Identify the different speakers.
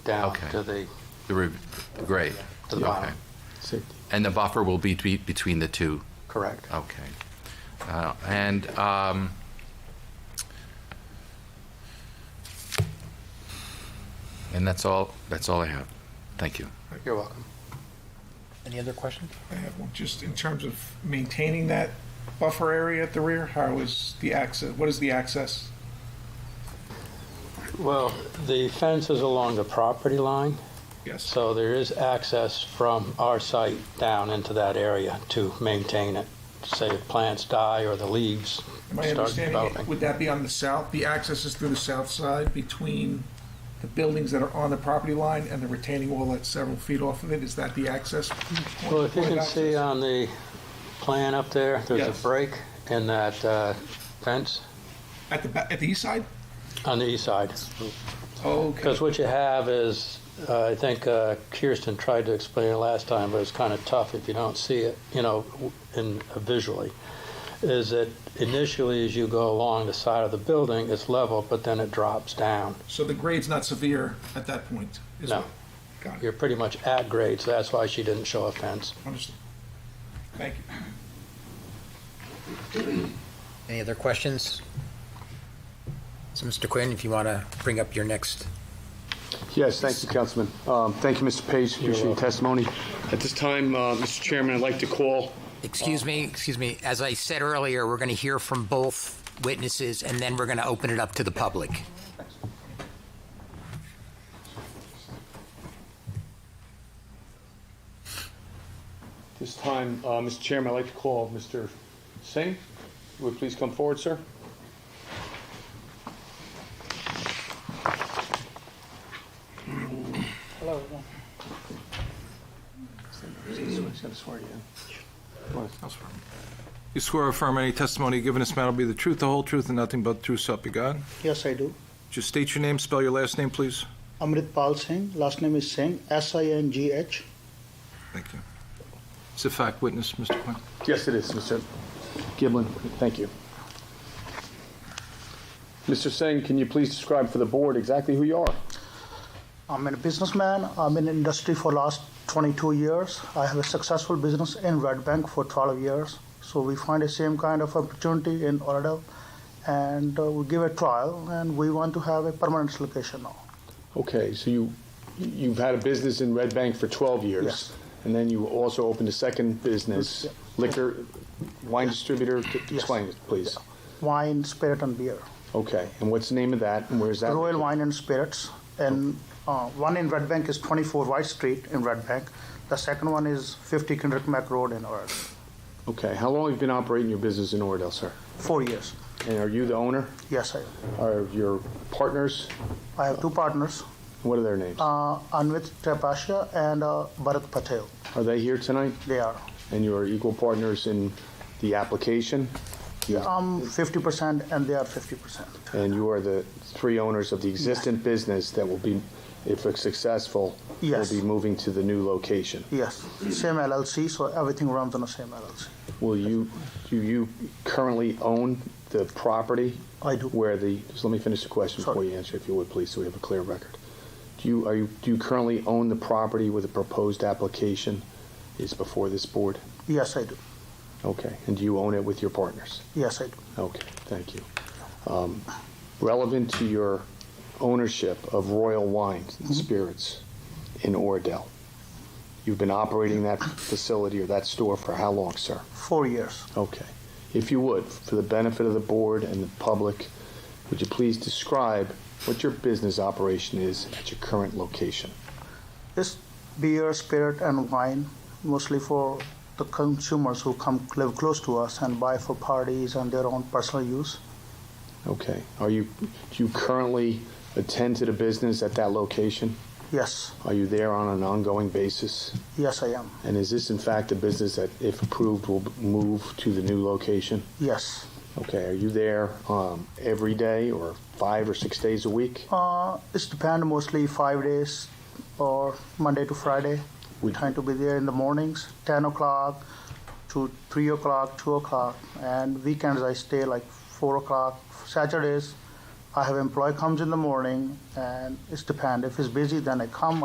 Speaker 1: down
Speaker 2: Okay.
Speaker 1: to the,
Speaker 2: The re- grade?
Speaker 1: to the
Speaker 2: Okay.
Speaker 1: bottom.
Speaker 3: Safety.
Speaker 2: And the buffer will be be- between the two?
Speaker 1: Correct.
Speaker 2: Okay. Uh, And um, and that's all, that's all I have. Thank you.
Speaker 1: You're welcome.
Speaker 4: Any other questions?
Speaker 5: I have one, just in terms of maintaining that buffer area at the rear, how is the access, what is the access?
Speaker 1: Well, the fence is along the property line,
Speaker 5: Yes,
Speaker 1: so there is access from our site down into that area to maintain it. Say if plants die or the leaves
Speaker 5: am I
Speaker 1: start
Speaker 5: understanding,
Speaker 1: developing.
Speaker 5: would that be on the south, the access is through the south side between the buildings that are on the property line and the retaining wall that's several feet off of it, is that the access? point-
Speaker 1: Well, if you
Speaker 5: point of
Speaker 1: can see
Speaker 5: access?
Speaker 1: on the plan up there, there's
Speaker 5: Yes.
Speaker 1: a break in that uh, fence uh,
Speaker 5: At the, ba- at the east side?
Speaker 1: on the east side.
Speaker 5: Okay,
Speaker 1: Because what you have is, uh, I think uh, Kirsten tried to explain it last time, but it's kind of tough if you don't see it, you know, w- in uh, visually, is that initially as you go along the side of the building, it's level, but then it drops down.
Speaker 5: so the grade's not severe at that point? is
Speaker 1: No.
Speaker 5: it? Got
Speaker 1: You're
Speaker 5: it,
Speaker 1: pretty much at grade, so that's why she didn't show a fence.
Speaker 5: understood. Thank you.
Speaker 4: Any other questions? So, Mr. Quinn, if you want to bring up your next,
Speaker 3: Yes, thank you, Councilman. Um, Thank you, Mr. Page, appreciate your testimony. At this time, uh, Mr. Chairman, I'd like to call,
Speaker 4: excuse me, excuse me, as I said earlier, we're going to hear from both witnesses, and then we're going to open it up to the public.
Speaker 3: this time, uh, Mr. Chairman, I'd like to call Mr. Singh. Would you please come forward, sir?
Speaker 6: Hello, everyone.
Speaker 7: You swear or affirm any testimony given this matter will be the truth, the whole truth, and nothing but the truth, so help you God?
Speaker 6: Yes, I do.
Speaker 7: Just state your name, spell your last name, please.
Speaker 6: Amrit Pal Singh, last name is Singh, S-I-N-G-H.
Speaker 7: Thank you. It's a fact witness, Mr. Quinn.
Speaker 3: Yes, it is, Mr. Giblin, thank you. Mr. Singh, can you please describe for the board exactly who you are?
Speaker 6: I'm a businessman. I'm in industry for last 22 years. I have a successful business in Red Bank for 12 years. So we find the same kind of opportunity in Oradell and uh, we give a trial and we want to have a permanent location now.
Speaker 3: Okay, so you, you've had a business in Red Bank for 12 years?
Speaker 6: Yes.
Speaker 3: And then you also opened a second business, liquor, wine distributor? Explain it, please.
Speaker 6: Wine, spirit and beer.
Speaker 3: Okay, and what's the name of that, and where's that?
Speaker 6: Royal Wine and Spirits, and uh, one in Red Bank is 24 White Street in Red Bank. The second one is 50 Kendrick Mack Road in Oradell.
Speaker 3: Okay, how long have you been operating your business in Oradell, sir?
Speaker 6: Four years.
Speaker 3: And are you the owner?
Speaker 6: Yes, I.
Speaker 3: Are your partners?
Speaker 6: I have two partners,
Speaker 3: What are their names?
Speaker 6: uh, Anvit Trapassia and uh, Bharat Patel.
Speaker 3: Are they here tonight?
Speaker 6: They are.
Speaker 3: And you are equal partners in the application?
Speaker 6: I'm 50% and they are 50%.
Speaker 3: And you are the three owners of the existing business that will be, if it's successful, will
Speaker 6: Yes.
Speaker 3: be moving to the new location?
Speaker 6: Yes, same LLC, so everything runs on the same LLC.
Speaker 3: Will you, do you currently own the property?
Speaker 6: I do.
Speaker 3: Where the, just let me finish the question before
Speaker 6: Sorry.
Speaker 3: you answer, if you would, please, so we have a clear record. Do you, are you, do you currently own the property where the proposed application is before this board?
Speaker 6: Yes, I do.
Speaker 3: Okay, and do you own it with your partners?
Speaker 6: Yes, I do.
Speaker 3: Okay, thank you. Um, Relevant to your ownership of Royal Wines and Spirits in Oradell, you've been operating that facility or that store for how long, sir?
Speaker 6: Four years.
Speaker 3: Okay. If you would, for the benefit of the board and the public, would you please describe what your business operation is at your current location?
Speaker 6: It's beer, spirit, and wine, mostly for the consumers who come live close to us and buy for parties and their own personal use.
Speaker 3: Okay. Are you, do you currently attend to the business at that location?
Speaker 6: Yes,
Speaker 3: Are you there on an ongoing basis?
Speaker 6: yes, I am.
Speaker 3: And is this in fact a business that, if approved, will move to the new location?
Speaker 6: Yes.
Speaker 3: Okay. Are you there um, every day or five or six days a week?
Speaker 6: Uh, it's depend mostly five days or Monday to Friday. We
Speaker 3: Would-
Speaker 6: trying to be there in the mornings, 10 o'clock to 3 o'clock, 2 o'clock, and weekends I stay like 4 o'clock. Saturdays, I have employee comes in the morning and it's depend. If he's busy, then I come.